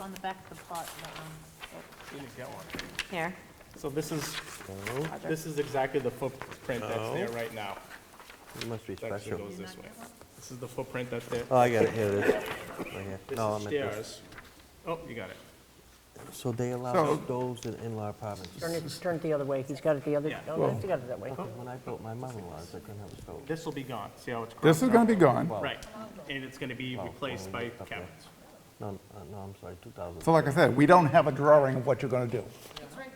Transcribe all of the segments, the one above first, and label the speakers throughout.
Speaker 1: on the back of the plot, um,
Speaker 2: You didn't get one.
Speaker 1: here.
Speaker 2: So this is,
Speaker 3: No,
Speaker 2: this is exactly the footprint that's there
Speaker 3: No.
Speaker 2: right now.
Speaker 3: it must be
Speaker 2: It actually
Speaker 3: special.
Speaker 2: goes this way. This is the footprint that's there.
Speaker 3: Oh, I got it, here it is. Right here.
Speaker 2: This
Speaker 3: No, I'm
Speaker 2: is
Speaker 3: at this.
Speaker 2: stairs. Oh, you got it.
Speaker 3: So they
Speaker 4: Oh.
Speaker 3: allow those in in-law apartments.
Speaker 5: Turn it, turn it the other way, he's got it the other,
Speaker 2: Yeah.
Speaker 5: no, he's got it that way.
Speaker 3: When I built my mother-in-law's, I couldn't have a stove.
Speaker 2: This will be gone. See how it's
Speaker 6: This
Speaker 2: crossed
Speaker 6: is
Speaker 2: out?
Speaker 6: gonna be gone.
Speaker 2: Right, and it's gonna be replaced by
Speaker 3: Oh, okay.
Speaker 2: cabinets.
Speaker 3: No, no, no, I'm sorry, 2,000.
Speaker 6: So like I said, we don't have a drawing of what you're gonna do.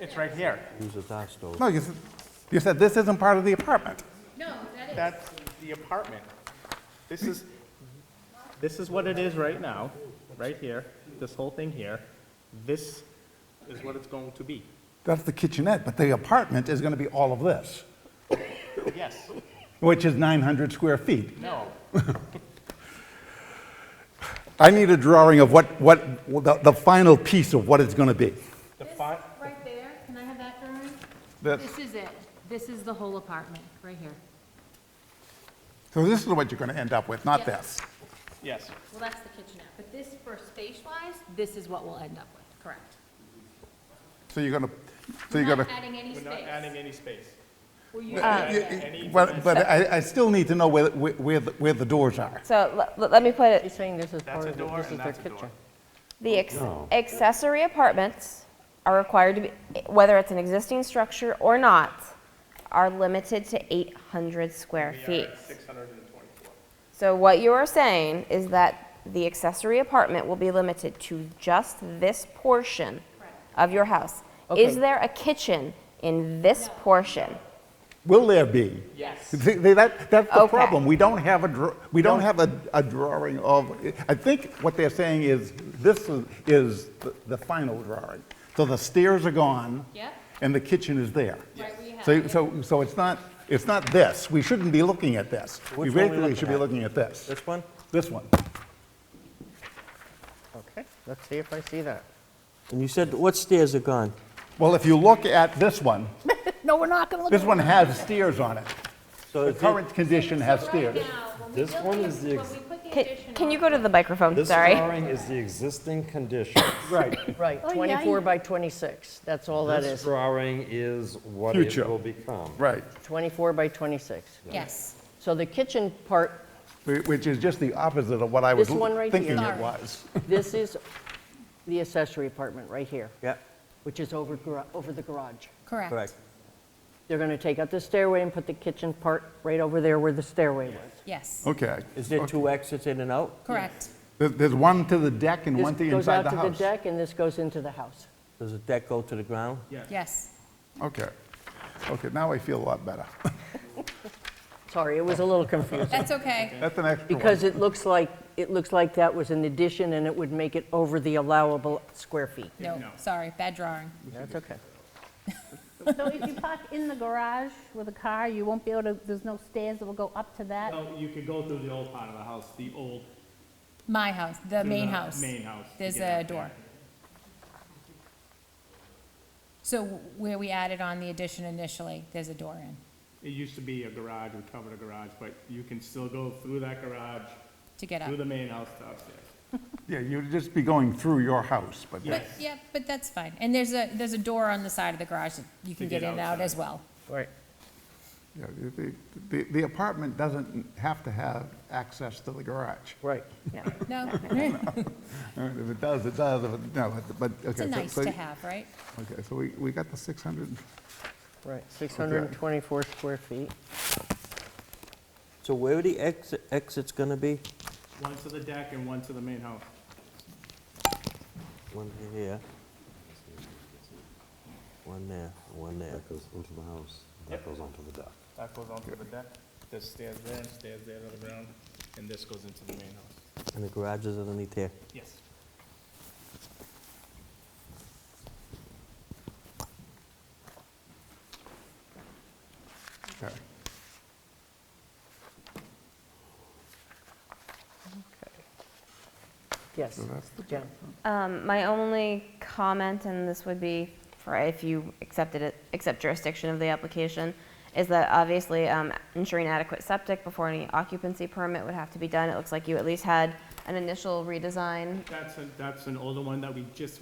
Speaker 2: It's right here.
Speaker 3: Use a dark stove.
Speaker 6: No, you, s- you said this isn't part of the apartment.
Speaker 7: No, that is.
Speaker 2: That's the apartment. This is, this is what it is right now, right here, this whole thing here. This is what it's going to be.
Speaker 6: That's the kitchenette, but the apartment is gonna be all of this,
Speaker 2: Yes,
Speaker 6: which is 900 square feet.
Speaker 2: no,
Speaker 6: I need a drawing of what, what, the, the final piece of what it's gonna be.
Speaker 2: the
Speaker 7: This
Speaker 2: fi,
Speaker 7: Right there, can I have that drawing?
Speaker 6: That-
Speaker 7: This is it. This is the whole apartment, right here.
Speaker 6: So this is what you're gonna end up with, not
Speaker 7: Yeah.
Speaker 6: this.
Speaker 2: yes.
Speaker 7: Well, that's the kitchenette, but this for space-wise, this is what we'll end up with, correct?
Speaker 6: So you're gonna, so you're
Speaker 7: Not
Speaker 6: gonna,
Speaker 7: adding any
Speaker 2: We're
Speaker 7: space.
Speaker 2: not adding any space.
Speaker 7: We're
Speaker 2: Uh,
Speaker 7: using
Speaker 6: You-
Speaker 7: that.
Speaker 6: you- but, but I, I still need to know where, where- where, the- where the doors are.
Speaker 8: So l- l- let me put it,
Speaker 5: He's saying this is
Speaker 2: That's
Speaker 5: part
Speaker 2: a
Speaker 5: of, it.
Speaker 2: door
Speaker 5: this is
Speaker 2: and
Speaker 5: their
Speaker 2: that's a door.
Speaker 5: kitchen.
Speaker 8: the ex-
Speaker 3: No.
Speaker 8: accessory apartments are required to be, whether it's an existing structure or not, are limited to 800 square feet.
Speaker 2: Six hundred and twenty-four.
Speaker 8: So what you are saying is that the accessory apartment will be limited to just this portion of your house. Is
Speaker 5: Okay.
Speaker 8: there a kitchen in this portion?
Speaker 6: Will there be? Yes. That, that's the
Speaker 8: Okay.
Speaker 6: problem. We don't have a, dra- we don't have a, a drawing of, I think what they're saying is, this is, is the- the final drawing. So the stairs are gone.
Speaker 7: Yep.
Speaker 6: And the kitchen is there.
Speaker 7: Right, we have.
Speaker 6: So, so, so it's not, it's not this. We shouldn't be looking at this. We
Speaker 3: Which one we
Speaker 6: basically should be
Speaker 3: looking
Speaker 6: looking at this,
Speaker 3: This one?
Speaker 6: this one.
Speaker 5: Okay, let's see if I see that.
Speaker 3: And you said, what stairs are gone?
Speaker 6: Well, if you look at this one,
Speaker 5: No, we're not gonna look.
Speaker 6: this one has stairs on it.
Speaker 3: So
Speaker 6: The
Speaker 3: is it-
Speaker 6: current condition has stairs.
Speaker 7: This one is the.
Speaker 8: Can, can you go to the microphone, sorry?
Speaker 4: drawing is the existing condition.
Speaker 6: Right.
Speaker 5: Right, 24 by 26, that's all that
Speaker 4: This
Speaker 5: is,
Speaker 4: drawing is what
Speaker 6: Future.
Speaker 4: it will become.
Speaker 6: Right,
Speaker 5: 24 by 26.
Speaker 7: Yes.
Speaker 5: So the kitchen part,
Speaker 6: Wh- which is just the opposite of what I was
Speaker 5: This one right
Speaker 6: thinking
Speaker 5: here.
Speaker 6: it was.
Speaker 5: this is the accessory apartment right here,
Speaker 3: Yeah,
Speaker 5: which is over, gar- over the garage.
Speaker 3: correct.
Speaker 5: They're gonna take out the stairway and put the kitchen part right over there where the stairway was.
Speaker 7: Yes,
Speaker 6: Okay.
Speaker 3: Is there two exits in and out?
Speaker 7: correct.
Speaker 6: There- There's one to the deck and one to
Speaker 5: This goes
Speaker 6: inside
Speaker 5: out
Speaker 6: the
Speaker 5: to the
Speaker 6: house.
Speaker 5: deck and this goes into the house.
Speaker 3: Does the deck go to the ground?
Speaker 7: Yes.
Speaker 6: Okay. Okay, now I feel a lot better.
Speaker 5: Sorry, it was a little confusing.
Speaker 7: That's okay.
Speaker 6: That's an extra one.
Speaker 5: Because it looks like, it looks like that was an addition, and it would make it over the allowable square feet.
Speaker 7: No, sorry, bad drawing.
Speaker 5: That's okay.
Speaker 9: So if you park in the garage with a car, you won't be able to, there's no stairs that will go up to that?
Speaker 2: No, you could go through the old part of the house, the old.
Speaker 7: My house, the
Speaker 2: through
Speaker 7: main
Speaker 2: the
Speaker 7: house.
Speaker 2: Main house. to
Speaker 7: There's
Speaker 2: get
Speaker 7: a
Speaker 2: out there.
Speaker 7: door. So where we added on the addition initially, there's a door in.
Speaker 2: It used to be a garage, we covered a garage, but you can still go through that garage,
Speaker 7: to get up.
Speaker 2: through the main house to upstairs.
Speaker 6: Yeah, you'd just be going through your house, but
Speaker 7: But, yeah, but that's fine. And there's a, there's a door on the side of the garage that you can
Speaker 2: get
Speaker 7: get in and out
Speaker 2: outside.
Speaker 7: as well.
Speaker 5: Right.
Speaker 6: yeah, the- the the apartment doesn't have to have access to the garage.
Speaker 5: Right.
Speaker 7: No,
Speaker 6: All right, If it does, it does, if it, no, but- but, okay.
Speaker 7: it's a
Speaker 6: so-
Speaker 7: nice
Speaker 6: so-
Speaker 7: to have, right?
Speaker 6: Okay, so we, we got the 600,
Speaker 5: Right, 624 square feet.
Speaker 3: So where are the exit- exits going to be?
Speaker 2: One to the deck and one to the main house.
Speaker 3: One here, one there, one there.
Speaker 4: That goes into the house, that goes onto the deck.
Speaker 2: That goes onto the deck, there's stairs there and stairs there to the ground, and this goes into the main house.
Speaker 3: And the garage is underneath here.
Speaker 2: Yes.
Speaker 6: okay.
Speaker 5: Yes, Jen.
Speaker 8: Um, my only comment, and this would be for if you accepted it, accept jurisdiction of the application, is that obviously um, ensuring adequate septic before any occupancy permit would have to be done. It looks like you at least had an initial redesign
Speaker 2: That's, a- that's an older one that we just